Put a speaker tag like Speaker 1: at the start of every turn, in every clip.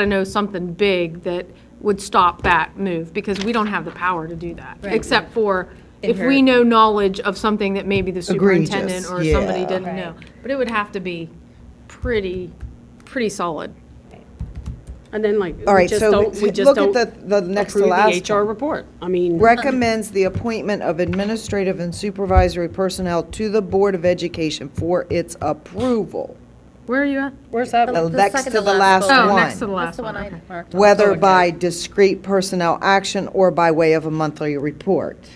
Speaker 1: to know something big that would stop that move, because we don't have the power to do that.
Speaker 2: Right.
Speaker 1: Except for if we
Speaker 2: Inherent.
Speaker 1: know knowledge of something that maybe the
Speaker 3: Egregious,
Speaker 1: superintendent or somebody
Speaker 3: yeah.
Speaker 1: didn't
Speaker 2: Right.
Speaker 1: know. But it would have to be pretty, pretty solid.
Speaker 4: And then like,
Speaker 3: All
Speaker 4: we
Speaker 3: right,
Speaker 4: just
Speaker 3: so
Speaker 4: don't, we
Speaker 3: s-
Speaker 4: just
Speaker 3: look at
Speaker 4: don't
Speaker 3: the- the next to
Speaker 4: approve
Speaker 3: last
Speaker 4: the HR
Speaker 3: one.
Speaker 4: report. I mean.
Speaker 3: Recommends the appointment of administrative and supervisory personnel to the Board of Education for its approval.
Speaker 1: Where are you at?
Speaker 4: Where's that?
Speaker 3: The
Speaker 2: the
Speaker 3: next
Speaker 2: second
Speaker 3: to
Speaker 2: to
Speaker 3: the
Speaker 2: last
Speaker 3: last
Speaker 1: Oh, next to the
Speaker 3: one.
Speaker 1: last
Speaker 2: the
Speaker 1: one.
Speaker 2: one
Speaker 1: okay.
Speaker 2: I marked.
Speaker 3: Whether by discrete personnel action or by way of a monthly report.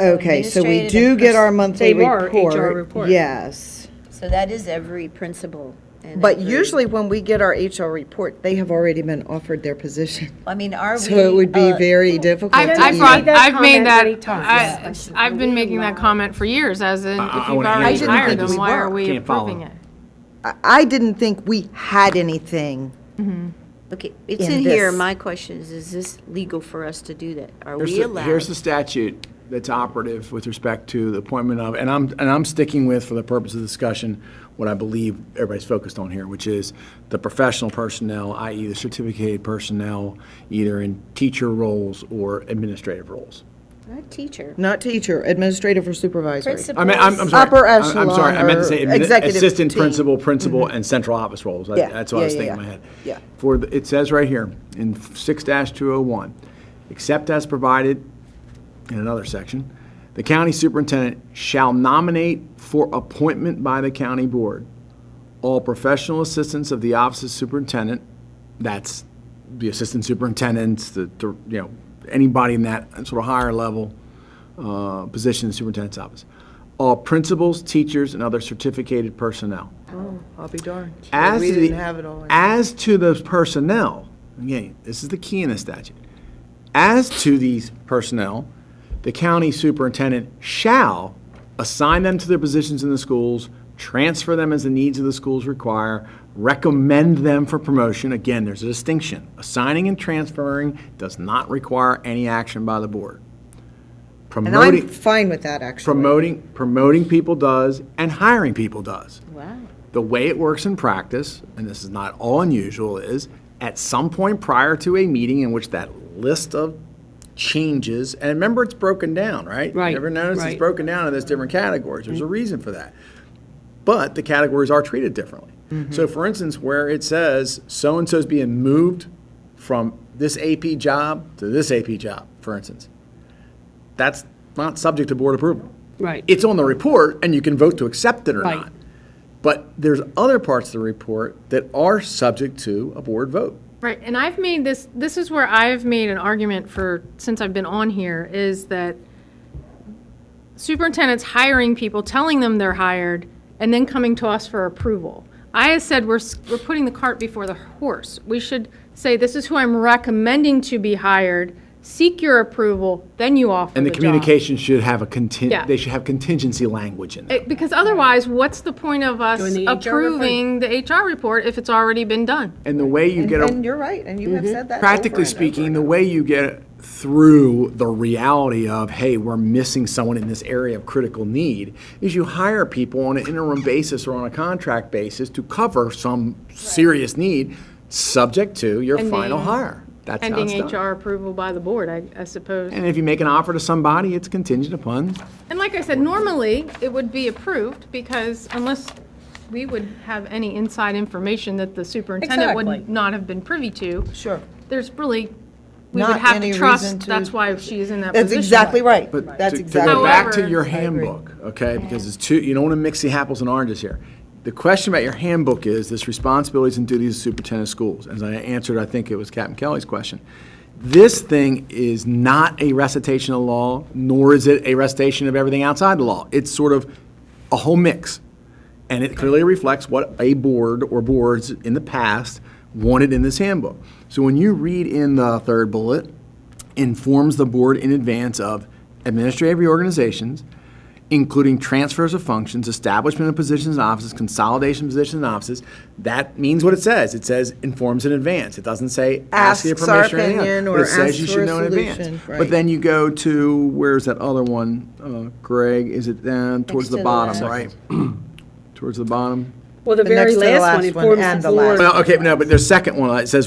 Speaker 3: Okay, so we
Speaker 2: administrative
Speaker 3: do
Speaker 2: and
Speaker 3: get our
Speaker 2: pers-
Speaker 3: monthly
Speaker 4: They are
Speaker 3: report.
Speaker 4: HR report.
Speaker 3: Yes.
Speaker 2: So that is every principal. and
Speaker 3: But
Speaker 2: every-
Speaker 3: usually when we get our HR report, they have already been offered their position.
Speaker 2: I mean, are we?
Speaker 3: So it would be
Speaker 2: uh,
Speaker 3: very difficult
Speaker 1: I've,
Speaker 3: to
Speaker 1: I've
Speaker 3: even-
Speaker 1: brought,
Speaker 4: that
Speaker 1: I've made
Speaker 4: comment
Speaker 1: that,
Speaker 4: many times.
Speaker 1: I, I've been making that comment for years, as in, if
Speaker 5: I
Speaker 1: you've
Speaker 5: wanna hear
Speaker 1: already
Speaker 5: it. I didn't
Speaker 1: hired
Speaker 3: think
Speaker 1: them,
Speaker 3: we
Speaker 1: why are
Speaker 3: were.
Speaker 1: we
Speaker 5: Can't follow.
Speaker 1: approving it?
Speaker 3: I- I didn't think we had anything.
Speaker 2: Okay, it's
Speaker 3: in
Speaker 2: in here.
Speaker 3: this.
Speaker 2: My question is, is this legal for us to do that? Are
Speaker 5: Here's
Speaker 2: we
Speaker 5: the-
Speaker 2: allowed?
Speaker 5: Here's the statute that's operative with respect to the appointment of, and I'm, and I'm sticking with, for the purpose of discussion, what I believe everybody's focused on here, which is the professional personnel, i.e. the certificated personnel, either in teacher roles or administrative roles.
Speaker 2: Not teacher.
Speaker 3: Not teacher, administrative or supervisory.
Speaker 2: Principal.
Speaker 5: I mean, I'm, I'm
Speaker 2: Principals.
Speaker 5: sorry.
Speaker 3: Upper
Speaker 5: I'm- I'm sorry, I meant to say
Speaker 3: echelon or
Speaker 5: admin-
Speaker 3: executive
Speaker 5: assistant
Speaker 3: team.
Speaker 5: principal, principal, and central office roles. That-
Speaker 3: Mm-hmm. Yeah,
Speaker 5: That's what I
Speaker 3: yeah,
Speaker 5: was
Speaker 3: yeah,
Speaker 5: thinking in
Speaker 3: yeah.
Speaker 5: my head.
Speaker 3: Yeah.
Speaker 5: For, the- it says right here, in six two oh one, except as provided in another section, the county superintendent shall nominate for appointment by the county board all professional assistants of the office of superintendent, that's the assistant superintendents, the, the, you know, anybody in that sort of higher level uh, position in the superintendent's office, all principals, teachers, and other certificated personnel.
Speaker 3: Oh, I'll be darned.
Speaker 5: As
Speaker 3: We
Speaker 5: to
Speaker 3: didn't
Speaker 5: the-
Speaker 3: have it all.
Speaker 5: As to the personnel, again, this is the key in the statute. As to these personnel, the county superintendent shall assign them to their positions in the schools, transfer them as the needs of the schools require, recommend them for promotion. Again, there's a distinction. Assigning and transferring does not require any action by the board.
Speaker 3: And I'm
Speaker 5: Promoting,
Speaker 3: fine with that, actually.
Speaker 5: promoting, promoting people does, and hiring people does
Speaker 2: Wow.
Speaker 5: the way it works in practice, and this is not all unusual, is at some point prior to a meeting in which that list of changes, and remember it's broken down, right?
Speaker 4: Right,
Speaker 5: You ever notice it's
Speaker 4: right. Mm-hmm.
Speaker 5: broken down into those different categories? There's a reason for that. But the categories are treated differently.
Speaker 4: Mm-hmm.
Speaker 5: So, for instance, where it says so and so's being moved from this AP job to this AP job, for instance, that's not subject to board approval.
Speaker 4: Right.
Speaker 5: It's on the report, and you can vote to accept it or
Speaker 4: Right.
Speaker 5: not. But there's other parts of the report that are subject to a board vote.
Speaker 1: Right, and I've made this, this is where I've made an argument for, since I've been on here, is that superintendents hiring people, telling them they're hired, and then coming to us for approval. I have said we're, s- we're putting the cart before the horse. We should say, this is who I'm recommending to be hired, seek your approval, then you offer
Speaker 5: And
Speaker 1: the
Speaker 5: the
Speaker 1: job.
Speaker 5: communication should have a
Speaker 1: Yeah.
Speaker 5: contin, they should have contingency language in there.
Speaker 1: It- Eh, Because otherwise, what's the point of us
Speaker 4: Doing the HR report.
Speaker 1: approving the HR report if it's already been done?
Speaker 5: And the way you
Speaker 3: And
Speaker 5: get, a- Mm-hmm.
Speaker 3: and you're right, and you have said that. over
Speaker 5: practically
Speaker 3: and over.
Speaker 5: speaking, the way you get through the reality of, hey, we're missing someone in this area of critical need, is you hire people on an interim basis or on a contract basis to cover some serious need, subject to your
Speaker 1: Ending-
Speaker 5: final hire. That's how it's
Speaker 1: Pending
Speaker 5: done.
Speaker 1: HR approval by the board, I, I suppose.
Speaker 5: And if you make an offer to somebody, it's contingent upon
Speaker 1: And like I said, normally, it would be approved, because unless we would have any inside information that the superintendent would
Speaker 4: Exactly.
Speaker 1: not have been privy to,
Speaker 3: Sure.
Speaker 1: there's really, we would
Speaker 3: Not
Speaker 1: have
Speaker 3: any
Speaker 1: to
Speaker 3: reason
Speaker 1: trust,
Speaker 3: to-
Speaker 1: that's why she is in that position.
Speaker 3: That's exactly right.
Speaker 5: But
Speaker 3: That's
Speaker 5: to-
Speaker 3: exactly
Speaker 5: To go
Speaker 3: right.
Speaker 5: back to
Speaker 1: However-
Speaker 5: your handbook, okay, because it's two, you don't want to mix the apples and oranges here. The question about your handbook is this responsibilities and duties of superintendent of schools. As I answered, I think it was Captain Kelly's question. This thing is not a recitation of law, nor is it a recitation of everything outside the law. It's sort of a whole mix. And it clearly reflects what a board or boards in the past wanted in this handbook. So when you read in the third bullet, informs the board in advance of administrative reorganizations, including transfers of functions, establishment of positions and offices, consolidation of positions and offices. That means what it says. It says informs in advance. It doesn't say ask your
Speaker 3: Asks our
Speaker 5: permission or anything.
Speaker 3: opinion
Speaker 5: but
Speaker 3: or
Speaker 5: it says you
Speaker 3: asks
Speaker 5: should
Speaker 3: for a
Speaker 5: know in advance.
Speaker 3: solution,
Speaker 5: But
Speaker 3: right.
Speaker 5: then you go to, where's that other one, uh, Greg? Is it down towards
Speaker 2: Next
Speaker 5: the
Speaker 2: to the
Speaker 5: bottom,
Speaker 2: left.
Speaker 5: right? Towards the bottom?
Speaker 4: Well, the
Speaker 3: The next
Speaker 4: very
Speaker 3: to the
Speaker 4: last one
Speaker 3: last one
Speaker 4: informs
Speaker 3: and
Speaker 4: the
Speaker 3: the last
Speaker 4: board.
Speaker 3: one.
Speaker 5: Well, okay, no, but their second one, it says